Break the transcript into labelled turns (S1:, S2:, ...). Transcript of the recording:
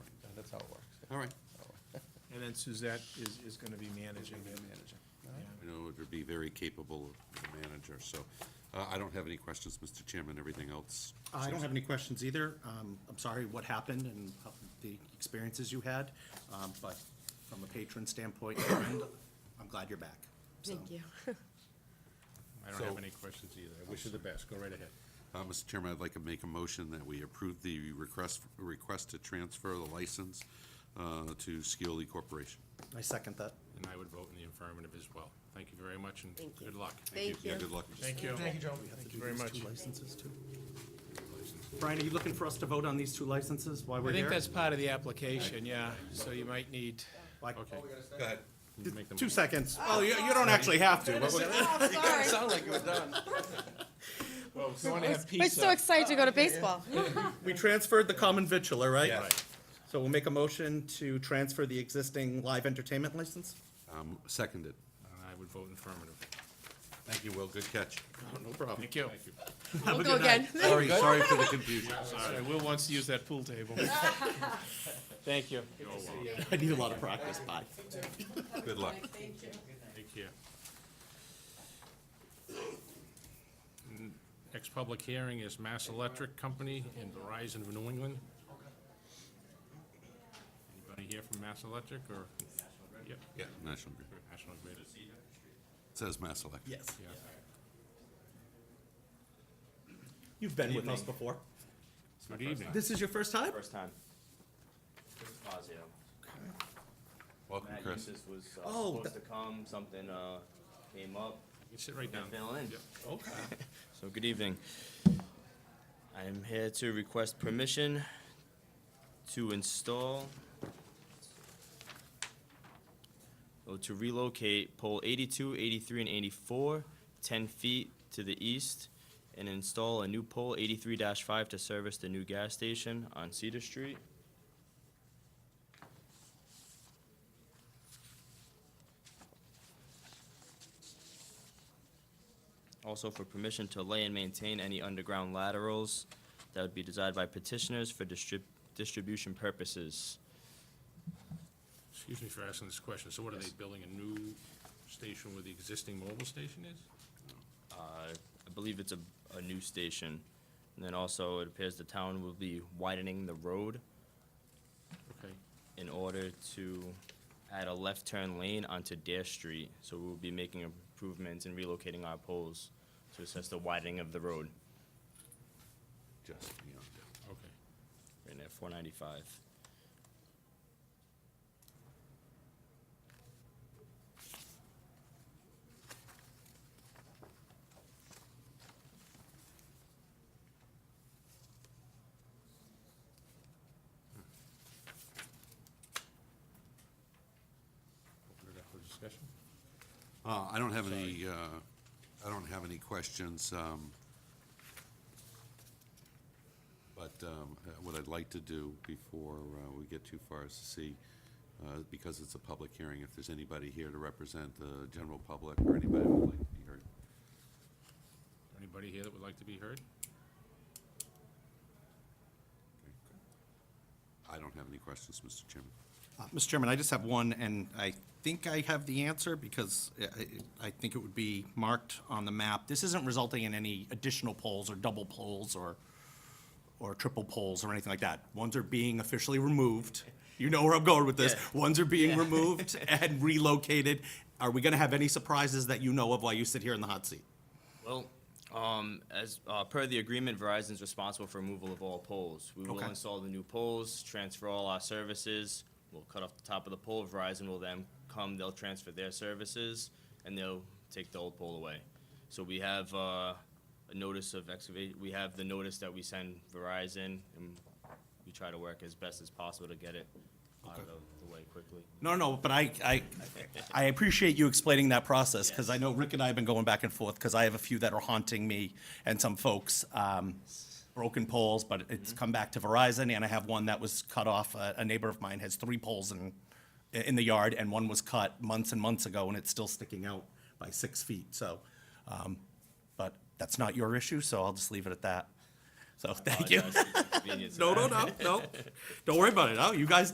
S1: all right.
S2: And then Suzette is, is gonna be managing
S1: Gonna be
S2: it.
S1: a manager.
S2: Yeah.
S1: I know it would be very capable of a manager, so uh, I don't have any questions, Mr. Chairman, everything else.
S3: I don't have any questions either. Um, I'm sorry what happened and how- the experiences you had, um, but from a patron standpoint, and I'm glad you're back. So,
S4: Thank you.
S5: I don't have
S1: So-
S5: any questions either. I wish you the best. Go right ahead.
S1: Uh, Mr. Chairman, I'd like to make a motion that we approve the request, request to transfer the license uh, to Skewely Corporation.
S3: I second that.
S5: And I would vote in the affirmative as well. Thank you very much and
S4: Thank you.
S5: good luck.
S4: Thank
S1: Yeah,
S4: you.
S1: good luck.
S2: Thank you. Thank you, Joe. Thank you very much.
S3: licenses too. Brian, are you looking for us to vote on these two licenses while
S5: I
S3: we're
S5: think
S3: here?
S5: that's part of the application, yeah. So you might need,
S3: Like,
S5: okay.
S1: Go ahead.
S5: Make them-
S3: Two seconds. Oh, you, you don't actually have to. What was-
S4: Oh, sorry.
S5: You wanna have
S4: We're so
S5: pizza?
S4: excited to go to baseball.
S3: We transferred the common vitular, right?
S5: Right.
S3: So we'll make a motion to transfer the existing live entertainment license?
S1: Um, Seconded.
S5: And I would vote in affirmative.
S1: Thank you, Will, good catch.
S3: No problem.
S5: Thank you.
S3: Have a
S4: We'll go
S3: good night.
S4: again.
S1: Sorry, sorry for the confusion.
S5: Sorry, Will wants to use that pool table. Thank you.
S3: I need a lot of practice, bye.
S1: Good luck.
S5: Take care. N- Next public hearing is Mass Electric Company and Verizon of New England. Anybody here from Mass Electric or? Yep,
S1: Yeah, National Grid.
S5: National Grid.
S1: Says Mass Electric.
S3: Yes.
S5: Yeah.
S3: You've been with us before.
S5: Good evening.
S3: This is your first time?
S6: First time. Chris Fazio.
S1: Welcome,
S6: Matt
S1: Chris.
S6: Eustace was uh,
S3: Oh,
S6: supposed to
S3: that-
S6: come, something uh, came up,
S5: You sit right down.
S6: fill in.
S5: Yep.
S3: Okay.
S6: So, good evening. I am here to request permission to install or to relocate pole 82, 83, and 84 10 feet to the east and install a new pole 83 5 to service the new gas station on Cedar Street. Also for permission to lay and maintain any underground laterals that would be desired by petitioners for distrib- distribution purposes.
S5: Excuse me for asking this question. So what are they building, a new station where the existing mobile station is?
S6: Uh, I believe it's a, a new station. And then also, it appears the town will be widening the road
S5: Okay,
S6: in order to add a left turn lane onto Dare Street. So we'll be making improvements and relocating our poles to assess the widening of the road
S1: Just beyond it.
S5: okay.
S6: right at four ninety-five.
S5: Open it up for discussion.
S1: Uh, I don't have any, uh, I don't have any questions, um, but, um, uh, what I'd like to do before, uh, we get too far is to see, uh, because it's a public hearing, if there's anybody here to represent the general public or anybody who would like to be heard.
S5: Anybody here that would like to be heard?
S1: I don't have any questions, Mr. Chairman.
S3: Uh, Mr. Chairman, I just have one, and I think I have the answer because I- I I think it would be marked on the map. This isn't resulting in any additional poles or double poles or, or triple poles or anything like that. Ones are being officially removed. You know where I'm going with this. Ones are being removed and relocated. Are we going to have any surprises that you know of while you sit here in the hot seat?
S6: Well, um, as, uh, per the agreement, Verizon's responsible for removal of all poles. We will
S3: Okay.
S6: install the new poles, transfer all our services, we'll cut off the top of the pole, Verizon will then come, they'll transfer their services, and they'll take the old pole away. So we have, uh, a notice of excavate, we have the notice that we send Verizon, and we try to work as best as possible to get it out of the- the way quickly.
S3: No, no, but I, I, I appreciate you explaining that process, because I
S6: Yes.
S3: know Rick and I have been going back and forth, because I have a few that are haunting me and some folks. um, Broken poles, but it's come back to Verizon, and I have one that was cut off. A a neighbor of mine has three poles in, in the yard, and one was cut months and months ago, and it's still sticking out by six feet, so. um, But that's not your issue, so I'll just leave it at that. So, thank you.
S6: Apologize for the inconvenience of
S3: No,
S6: that.
S3: no, no, no. Don't worry about it. No, you guys